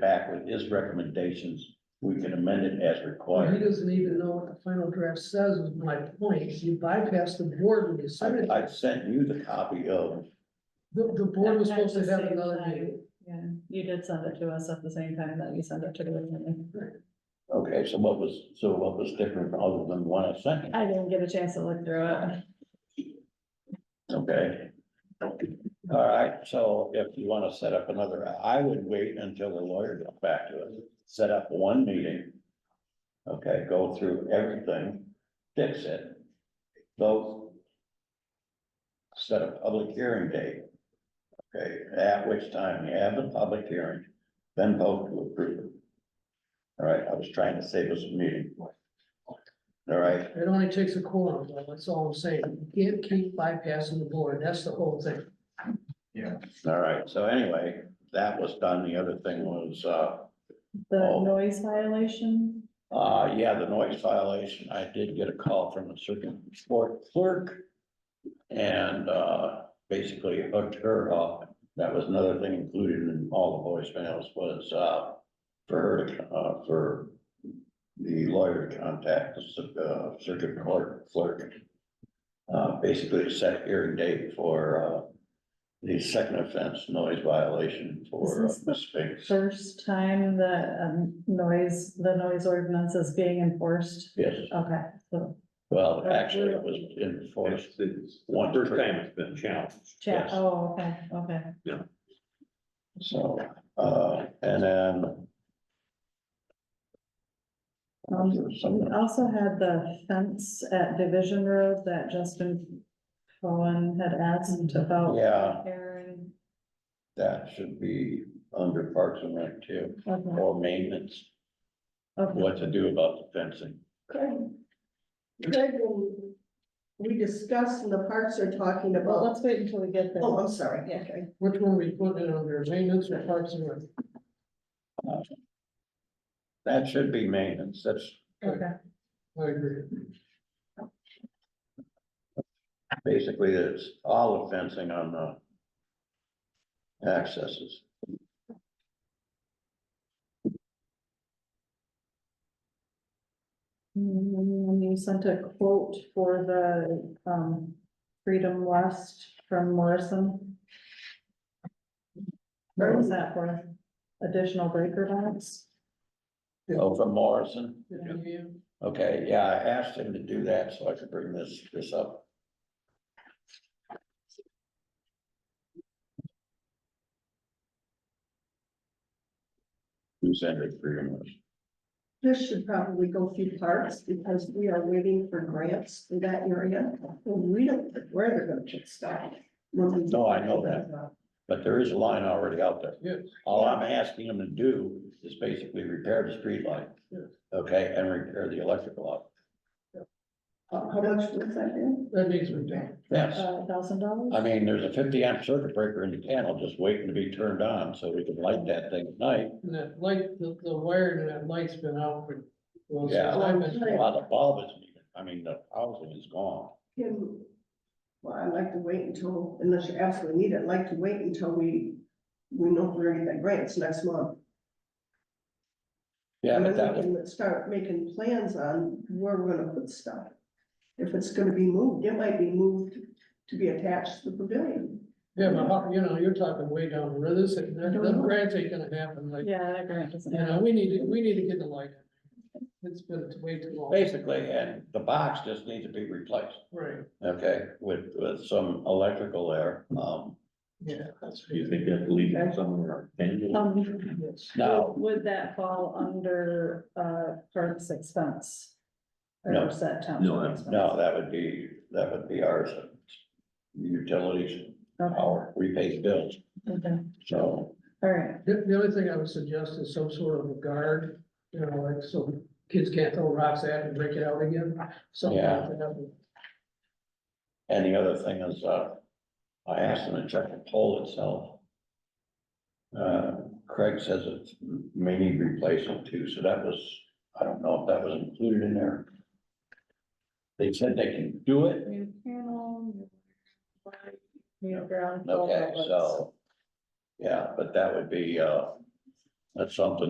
back with his recommendations, we can amend it as Well, he required. doesn't even know what the final draft says, is my point, you bypassed the board when you I, submitted, I sent you the copy of, the, the board was At supposed to the have same another time. meeting. Yeah, you did send it to us at the same time that you sent it to the meeting. okay, so what was, so what was different other than one I sent? you? I didn't get a chance to look through it. Okay. All right, so if you wanna set up another, I would wait until the lawyer gets back to us, set up one meeting. Okay, go through everything, fix it, vote. Set a public hearing date. Okay, at which time you have the public hearing, then vote to approve it. All right, I was trying to save us a meeting. All right, It only takes a quorum, though, that's all I'm saying, you can't keep bypassing the board, that's the whole thing. all right, so anyway, that was done, the other thing was, uh. The Oh. noise violation, Uh, yeah, the noise violation, I did get a call from the circuit court clerk. And, uh, basically hooked her up. That was another thing included in all the voicemails was, uh, for her, to, uh, for the lawyer to contact the, cir- uh, circuit court clerk. Uh, basically to set hearing date for, uh, the second offense, noise violation for This is the Miss Spinks. first time that um noise, the noise ordinance is being enforced. Yes, Okay, so, well, actually, it was enforced It's the One. first time it's been challenged. chat, Yes. oh, okay, okay. So, uh, and then. Um, Some- We also had the fence at Division Road that Justin Cohen had asked about. Yeah. repairing. That should be under Parks and Rec too, Okay, or maintenance, okay. what to do about the fencing. Craig, Craig, when we discussed and the parks are talking Well, about, let's wait until we get there. oh, I'm sorry, Yeah. okay. Which one we put in under maintenance or parks and rec? That should be maintenance, that's Okay, I agree. basically, it's all the fencing on the accesses. and you Mm-hmm. sent a quote for the, um, Freedom West from Morrison. Where was that for? Additional breaker box? Oh, from Morrison, Yeah. okay, yeah, I asked him to do that so I could bring this, this up. Who's entered three months? This should probably go through parks because we are waiting for grants in that area. And we don't, know where they're gonna get started. No, I know that. But there is a line already out there. Yes. All I'm asking them to do is basically repair the street light. Yes. Okay, and repair the electrical light. Uh, How how much was that in? That needs to be done. Yes, Uh, thousand dollars? I mean, there's a fifty amp circuit breaker in the panel just waiting to be turned on so we can light that thing at night. And that light, the, the wiring and that light's been out for. well, since Yeah. I've been- While the bulb isn't even, I mean, the housing is gone. Kim, Well, I'd like to wait until, unless you absolutely need it, I'd like to wait until we, we know if we're gonna get grants next month. Yeah, And but then that we was, can start making plans on where we're gonna put stuff. If it's gonna be moved, it might be moved to be attached to the pavilion. Yeah, but how- you know, you're talking way down the road, this, that, that grants ain't gonna happen, like, you Yeah, that grant doesn't. know, we need to, we need to get the light. It's been way too long, basically, and the box just needs to be replaced, right, okay, with, with some electrical there. Um, yeah, that's. Do you think that leads to somewhere? Um, now, Would that fall under, uh, parks expense? No. Or is that town? No, that's- No, that would be, that would be ours. Utilities, our, we pay bills, Okay, so, all right, The, the only thing I would suggest is some sort of a guard, you know, like, so kids can't throw rocks at it and break it out again, something like that. and the other thing is, uh, I asked them to check the pole itself. Uh, Craig says it may need replacement too, so that was, I don't know if that was included in there. They said they can do it, new panel, new. light, New ground. okay, so, yeah, but that would be, uh, That's something